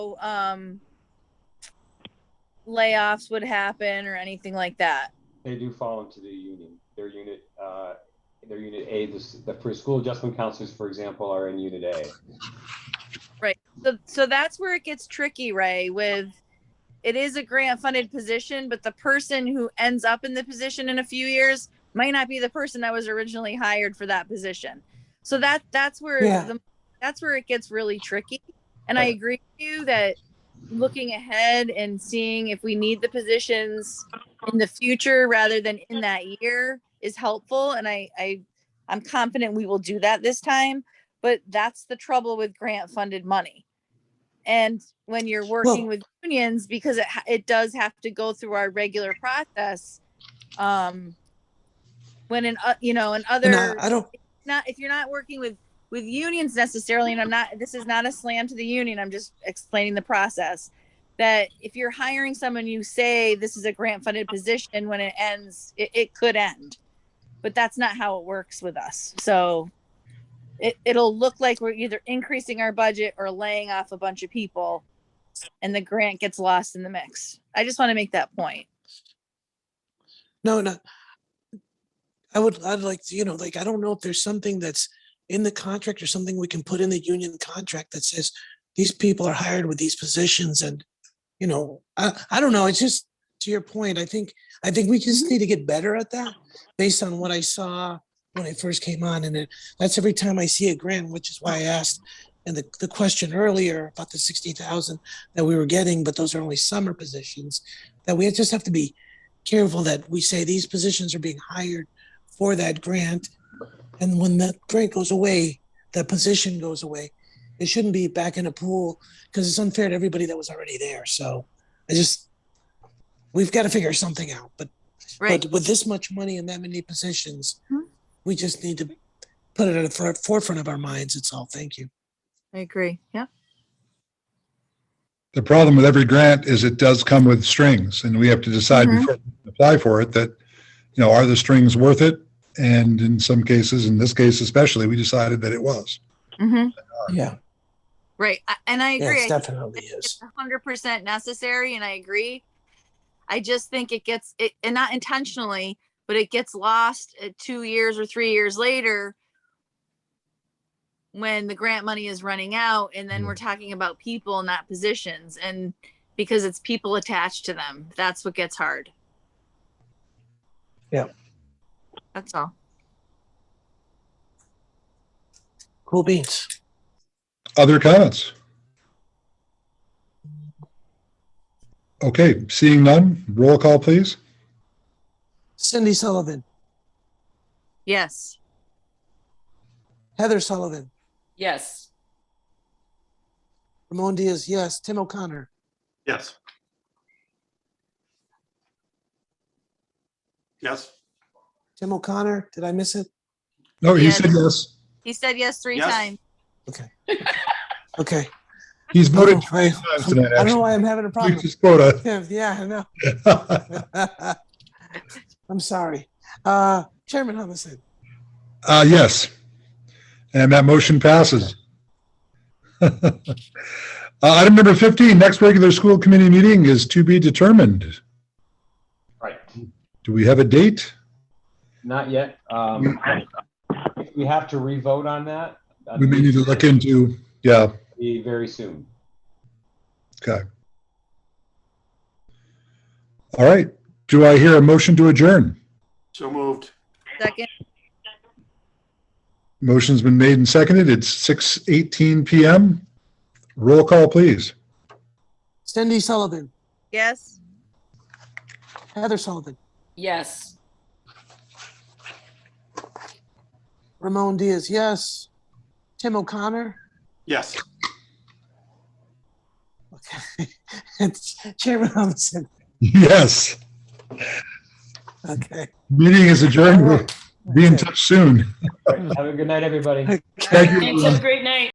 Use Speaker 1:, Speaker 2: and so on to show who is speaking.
Speaker 1: um layoffs would happen or anything like that.
Speaker 2: They do fall into the union. Their unit, uh, their unit A, this, the for school adjustment counselors, for example, are in unit A.
Speaker 1: So, so that's where it gets tricky, Ray, with it is a grant funded position, but the person who ends up in the position in a few years might not be the person that was originally hired for that position. So that that's where
Speaker 3: Yeah.
Speaker 1: the, that's where it gets really tricky. And I
Speaker 2: Right.
Speaker 1: agree with you that looking ahead and seeing if we need the positions in the future rather than in that year is helpful. And I, I I'm confident we will do that this time. But that's the trouble with grant funded money. And when you're working
Speaker 3: Well-
Speaker 1: with unions, because it, ha- it does have to go through our regular process. Um, when in, o- you know, in
Speaker 3: And
Speaker 1: other,
Speaker 3: I, I don't,
Speaker 1: not, if you're not working with, with unions necessarily, and I'm not, this is not a slam to the union, I'm just explaining the process. That if you're hiring someone, you say this is a grant funded position, when it ends, it, it could end. But that's not how it works with us. So it, it'll look like we're either increasing our budget or laying off a bunch of people and the grant gets lost in the mix. I just want to make that point.
Speaker 3: no, no. I would, I'd like to, you know, like, I don't know if there's something that's in the contract or something we can put in the union contract that says these people are hired with these positions and, you know, I, I don't know. It's just to your point, I think, I think we just need to get better at that based on what I saw when I first came on. And it, that's every time I see a grant, which is why I asked and the, the question earlier about the 60,000 that we were getting, but those are only summer positions that we just have to be careful that we say these positions are being hired for that grant. And when that grant goes away, that position goes away. It shouldn't be back in a pool because it's unfair to everybody that was already there. So I just, we've got to figure something out. But, but with this much money and that many positions,
Speaker 1: Mhm.
Speaker 3: we just need to put it at the fore- forefront of our minds. It's all. Thank you.
Speaker 1: I agree. Yeah.
Speaker 4: The problem with every grant is it does come with strings and we have to decide
Speaker 1: Mhm.
Speaker 4: before we apply for it that, you know, are the strings worth it? And in some cases, in this case especially, we decided that it was.
Speaker 1: Mm-hmm.
Speaker 3: Yeah.
Speaker 1: Right. I- And I
Speaker 3: Yeah,
Speaker 1: agree.
Speaker 3: it
Speaker 1: I
Speaker 3: definitely is.
Speaker 1: hundred percent necessary, and I agree. I just think it gets it, and not intentionally, but it gets lost at two years or three years later when the grant money is running out, and then we're talking about people, not positions, and because it's people attached to them, that's what gets hard.
Speaker 3: Yeah.
Speaker 1: That's all.
Speaker 3: Cool beans.
Speaker 4: Other comments? Okay, seeing none, roll call, please.
Speaker 3: Cindy Sullivan,
Speaker 1: Yes.
Speaker 3: Heather Sullivan,
Speaker 5: Yes.
Speaker 3: Ramon Diaz, yes. Tim O'Connor,
Speaker 6: Yes. Yes.
Speaker 3: Tim O'Connor, did I miss it?
Speaker 4: No, he
Speaker 1: Yes.
Speaker 4: said yes.
Speaker 1: He said yes three
Speaker 6: Yes.
Speaker 1: times.
Speaker 3: Okay.
Speaker 4: He's
Speaker 3: I don't
Speaker 4: voted
Speaker 3: know why-
Speaker 4: three times tonight,
Speaker 3: Oh. I don't know
Speaker 4: actually.
Speaker 3: why I'm having a
Speaker 4: We
Speaker 3: problem.
Speaker 4: just quota.
Speaker 3: Yeah, yeah, I know. I'm sorry. Uh, Chairman Humison,
Speaker 4: Uh, yes. And that motion passes. Uh, Item number 15, next regular school committee meeting is to be determined.
Speaker 2: Right.
Speaker 4: Do we have a date?
Speaker 2: Not yet. Um, we have to revote on that.
Speaker 4: We may need to look into, yeah,
Speaker 2: Be Very soon.
Speaker 4: okay. All right. Do I hear a motion to adjourn?
Speaker 6: So moved.
Speaker 1: Second.
Speaker 4: Motion's been made and seconded. It's 6:18 PM. Roll call, please.
Speaker 3: Cindy Sullivan,
Speaker 1: Yes.
Speaker 3: Heather Sullivan,
Speaker 5: Yes.
Speaker 3: Ramon Diaz, yes. Tim O'Connor,
Speaker 6: Yes.
Speaker 3: okay. And Chairman Humison,
Speaker 4: Yes.
Speaker 3: okay.
Speaker 4: Meeting is adjourned. We'll Be in touch soon.
Speaker 2: All right, Have a good night, everybody.
Speaker 3: Okay.
Speaker 4: Thank you.
Speaker 5: Thanks. Have a great night.